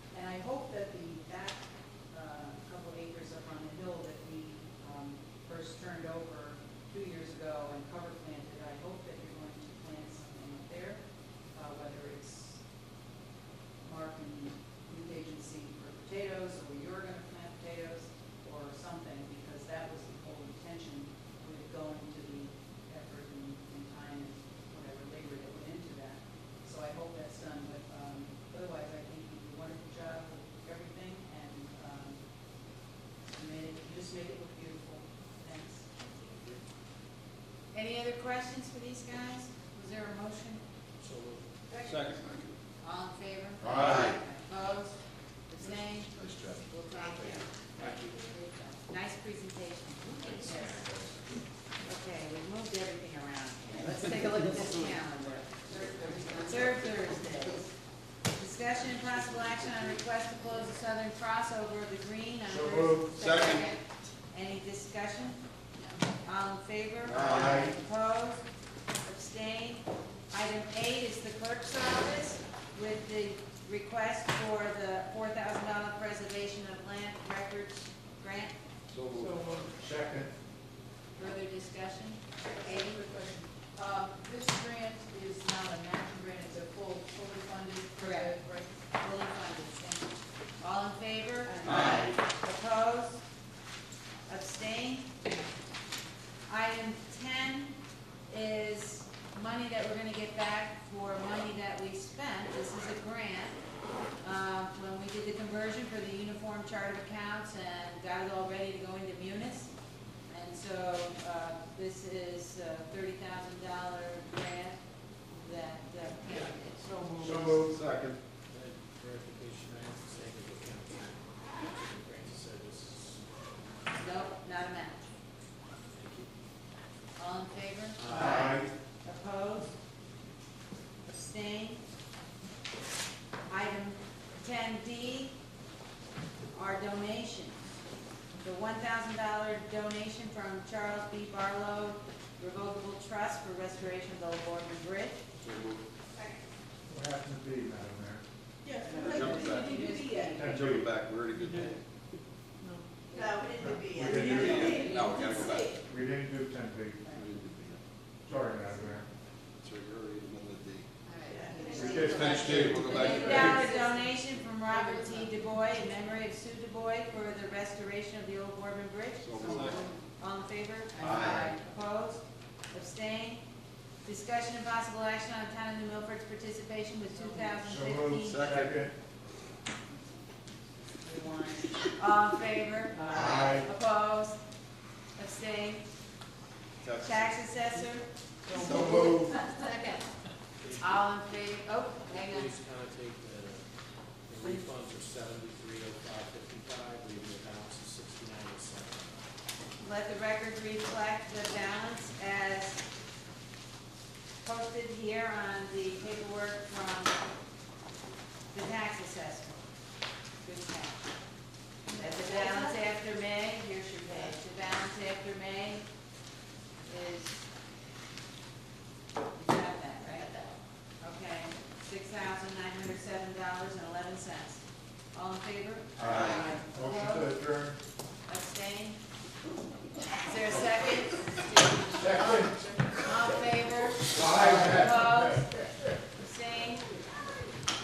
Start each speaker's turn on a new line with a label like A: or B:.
A: Any other questions for these guys? Was there a motion?
B: So moved.
C: Second.
A: All in favor?
C: Aye.
A: Opposed? Abstained?
C: Nice job.
A: We'll take it.
B: Thank you.
A: Nice presentation. Okay, we moved everything around here. Let's take a look at this calendar. Third Thursday. Discussion and possible action on request to close the southern crossover of the green on
C: So
A: Thursday.
C: moved. Second.
A: Any discussion? All in favor?
C: Aye.
A: Opposed? Abstained? Item eight is the clerk's office with the request for the four thousand dollar preservation of land records grant.
B: So moved.
C: Second.
A: Further discussion?
D: Any quick question? Uh, this grant is not an action grant, it's a full, fully funded.
A: Correct.
D: grant.
A: Fully funded, thank you. All in favor?
C: Aye.
A: Opposed? Abstained? Item ten is money that we're gonna get back for money that we spent. This is a grant. Uh, when we did the conversion for the uniform chart of accounts and got it all ready to go into munis. And so, uh, this is a thirty thousand dollar grant that, uh, it's so
C: So moved. Second.
B: Clarification, I have to say that the county, the grant service,
A: Nope, not a match.
B: thank you.
A: All in favor? Opposed? Abstained? Item ten D are donations. The one thousand dollar donation from Charles B. Barlow Revocable Trust for restoration of the Old Boardman Bridge.
C: What happened to B, Madam Mayor?
E: Yes,
C: Jump back.
E: we didn't do B yet.
C: Ten B.
F: Jumping back, we're at a good day.
E: No, we didn't do B yet.
C: We didn't do B
F: yet. No, we gotta go back.
C: We didn't do ten B. Sorry, Madam Mayor.
F: So you're already in the
C: We did finish D, we'll go back
A: Fifty
C: to
A: dollar donation from Robert T. DuBois in memory of Sue DuBois for the restoration of the Old Boardman Bridge.
F: So moved.
A: All in favor?
C: Aye.
A: Opposed? Abstained? Discussion and possible action on town of New Milford's participation with two thousand
C: So moved.
A: fifteen.
C: Second.
A: All in favor?
C: Aye.
A: Opposed? Abstained?
F: Texas.
A: Tax assessor?
C: So moved.
A: Second. All in favor? Oh, hang on.
B: Please contact the, the refunds are seventy-three oh five fifty-five, leaving the balance of sixty-nine oh seven.
A: Let the record reflect the balance as posted here on the paperwork from the tax assessment. Good catch. That the balance after May, here's your page, the balance after May is, you got that, right? Okay, six thousand nine hundred seven dollars and eleven cents. All in favor?
C: Aye. Motion to adjourn.
A: Abstain? Is there a second?
C: Second.
A: All in favor?
C: Aye.
A: Opposed?